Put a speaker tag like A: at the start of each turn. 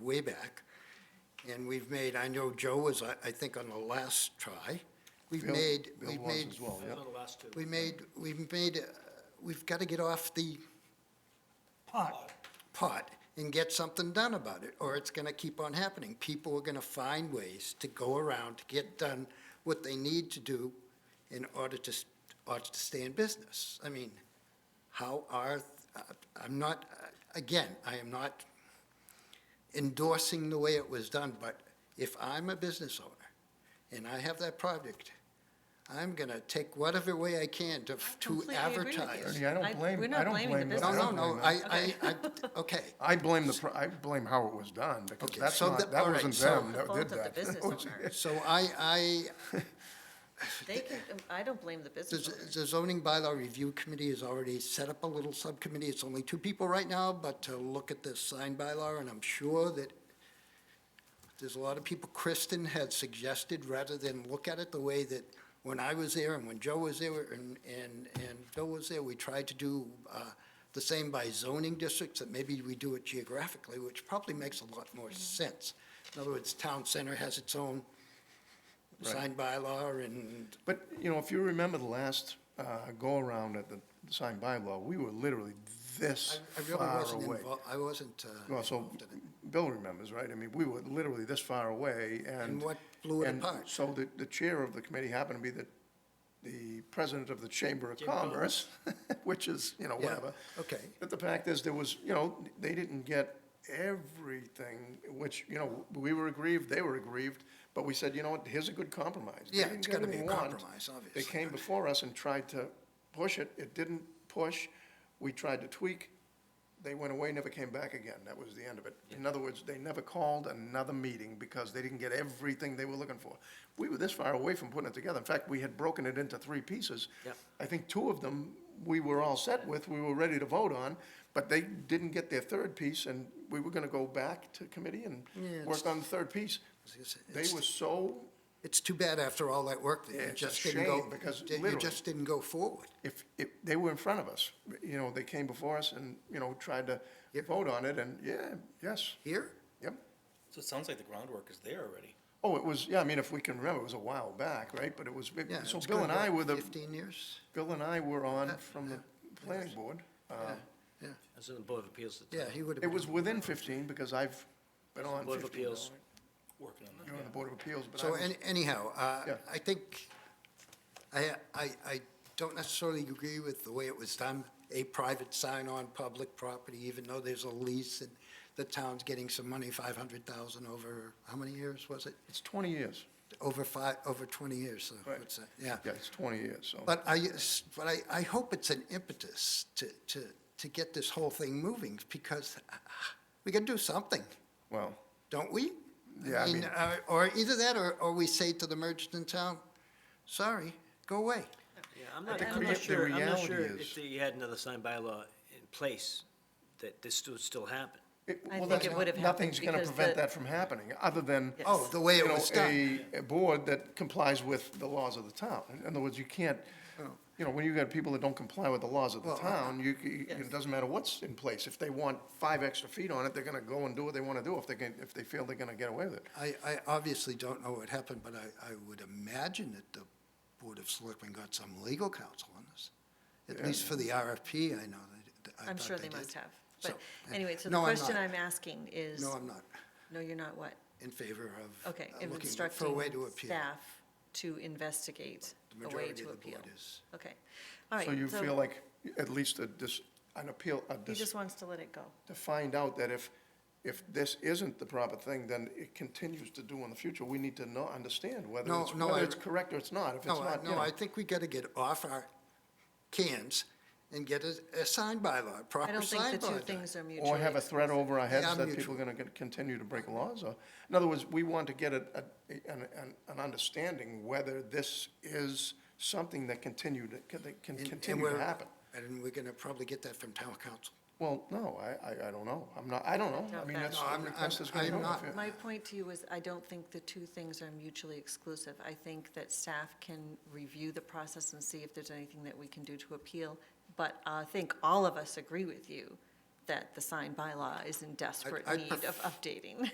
A: way back. And we've made, I know Joe was, I, I think, on the last try. We've
B: Bill-
A: made,
B: Bill
A: we've
B: was
A: made.
B: as well, yeah.
C: the last two.
A: We made, we've made, uh, we've got to get off the
C: Pot.
A: pot and get something done about it, or it's going to keep on happening. People are going to find ways to go around to get done what they need to do in order to, s- order to stay in business. I mean, how are, uh, I'm not, uh, again, I am not endorsing the way it was done, but if I'm a business owner and I have that project, I'm going to take whatever way I can to, to
D: Completely agree with you.
A: advertise.
B: Ernie, I
D: I-
B: don't blame,
D: we're
B: I
D: not
B: don't
D: blaming the
B: blame.
A: No,
B: I
A: no,
B: don't
A: no,
B: blame
A: I,
B: that.
A: I, I, okay.
B: I blame the, pro- I blame how it was done, because
A: Okay,
B: that's
A: so
B: not,
A: that-
B: that
A: all right,
B: wasn't
A: so-
B: them that
D: Fault
B: did
D: of the
B: that.
D: business
B: That was-
D: owner.
A: So I, I,
D: They can, um, I don't blame the
A: the
D: business
A: z-
D: owner.
A: the zoning bylaw review committee has already set up a little subcommittee. It's only two people right now, but to look at this sign bylaw, and I'm sure that there's a lot of people, Kristen had suggested, rather than look at it the way that when I was there and when Joe was there and, and, and Bill was there, we tried to do, uh, the same by zoning districts, that maybe we do it geographically, which probably makes a lot more sense. In other words, town center has its own
B: Right.
A: sign bylaw and
B: But, you know, if you remember the last uh, go-around at the sign bylaw, we were literally this
A: I- I really
B: far
A: wasn't
B: away.
A: involved, I wasn't uh,
B: Well, so
A: involved in it.
B: Bill remembers, right? I mean, we were literally this far away and.
A: And what blew it
B: and
A: apart?
B: So the, the chair of the committee happened to be the, the president of the Chamber of
C: Chamber of
B: Commerce, which is, you know,
A: Yeah,
B: whatever.
A: okay.
B: But the fact is, there was, you know, they didn't get everything, which, you know, we were aggrieved, they were aggrieved, but we said, you know what, here's a good compromise. They
A: Yeah,
B: didn't
A: it's
B: get
A: gotta be a
B: everything we want.
A: compromise,
B: They
A: obviously.
B: came before us and tried to push it, it didn't push, we tried to tweak, they went away, never came back again, that was the end of it. In other words, they never called another meeting because they didn't get everything they were looking for. We were this far away from putting it together, in fact, we had broken it into three pieces.
C: Yep.
B: I think two of them, we were all set with, we were ready to vote on, but they didn't get their third piece, and we were gonna go back to committee and
A: Yeah,
B: work
A: it's-
B: on the third piece.
A: It's-
B: They
A: it's-
B: were so,
A: It's too bad after all that work that
B: Yeah,
A: you
B: it's a
A: just didn't go,
B: shame because
A: that you
B: literally-
A: just didn't go forward.
B: if, if, they were in front of us, you know, they came before us and, you know, tried to
A: Yep.
B: vote on it, and, yeah, yes,
A: Here,
B: yep.
E: So it sounds like the groundwork is there already.
B: Oh, it was, yeah, I mean, if we can remember, it was a while back, right? But it was, it-
A: yeah.
B: so
A: it's
B: Bill
A: going
B: and
A: back Uh,
B: I were the,
A: Fifteen years,
B: Bill and I were on
A: that-
B: from the planning board. Uh,
A: yeah,
C: As in the Board of Appeals. at the
A: yeah,
C: time.
A: he would have.
B: It was within fifteen, because I've been on
C: Board of
B: fifteen. now,
C: Appeals.
B: right?
E: Working on that.
B: You're on the
E: yeah.
B: Board of Appeals, but I
A: So
B: was,
A: any- anyhow, uh,
B: Yeah.
A: I think, I, I, I don't necessarily agree with the way it was done, a private sign on public property, even though there's a lease and the town's getting some money, five hundred thousand over, how many years was it?
B: it's twenty years.
A: Over five, over twenty years, so,
B: Right.
A: what's that, yeah.
B: Yeah, it's twenty years, so.
A: But I, but I, I hope it's an impetus to, to, to get this whole thing moving, because we can do something,
B: Well,
A: don't we?
B: Yeah, I mean-
A: uh, Or either that, or, or we say to the merchants in town, sorry, go away.
C: Yeah, I'm not,
B: the
C: I'm
B: crea-
C: not
B: the
C: sure, I'm not
B: reality
C: sure
B: is-
C: if they had another signed bylaw in place, that this would still happen.
B: it,
D: I
B: well,
D: think
B: that's
D: it
B: not-
D: would've happened
B: nothing's gonna
D: because
B: prevent
D: the-
B: that from happening, other than.
D: Yes.
A: Oh, the way
B: you
A: it
B: know,
A: was done.
B: a- A board that complies with the laws of the town. In other words, you can't, you know, when you've got people that don't comply with the laws of the
A: Oh. Well, I-
B: town, you, you-
D: Yes.
B: it doesn't matter what's in place. If they want five extra feet on it, they're gonna go and do what they wanna do if they can, if they feel they're gonna get away with it.
A: I, I obviously don't know what happened, but I, I would imagine that the Board of Selectmen got some legal counsel on this. At least for the RFP, I know that, I
D: I'm
A: thought
D: sure they
A: did.
D: must have.
A: So,
D: But anyway, so the
A: no, I'm
D: question
A: not.
D: I'm asking is,
A: No, I'm not
D: no, you're not what?
A: in favor of.
D: Okay,
A: uh,
D: of
A: looking for a
D: instructing
A: way to appeal.
D: staff to investigate
A: The
D: a way
A: majority
D: to
A: of the
D: appeal.
A: board is-
D: Okay, all right.
B: So you feel like at least a, dis an appeal, a
D: He
B: dis-
D: just wants to let it go.
B: to find out that if, if this isn't the proper thing, then it continues to do in the future. We need to know, understand whether
A: No,
B: it's,
A: no, I-
B: whether it's correct or it's not. If it's
A: No, I-
B: not, you
A: no,
B: know.
A: I think we gotta get off our cans and get a, a sign bylaw, a
D: I
A: proper
D: don't think
A: sign
D: the two
A: bylaw.
D: things are mutually.
B: Or have a threat over our
A: Yeah,
B: heads that
A: mutual.
B: people are gonna get- continue to break laws, or, in other words, we want to get a, a- an, an, an understanding whether this is something that continued, that can
A: And- and
B: continue to
A: we're-
B: happen.
A: And we're gonna probably get that from town council.
B: Well, no, I, I, I don't know, I'm not, I don't know, I
D: Doubt
B: mean,
D: that.
B: that's,
A: No, I'm-
B: the request
A: I'm-
B: is gonna
A: I'm
B: go.
A: not-
B: if it-
D: My point to you is, I don't think the two things are mutually exclusive. I think that staff can review the process and see if there's anything that we can do to appeal. But I think all of us agree with you that the signed bylaw is in desperate
A: I'd
D: need of
A: pref-
D: updating.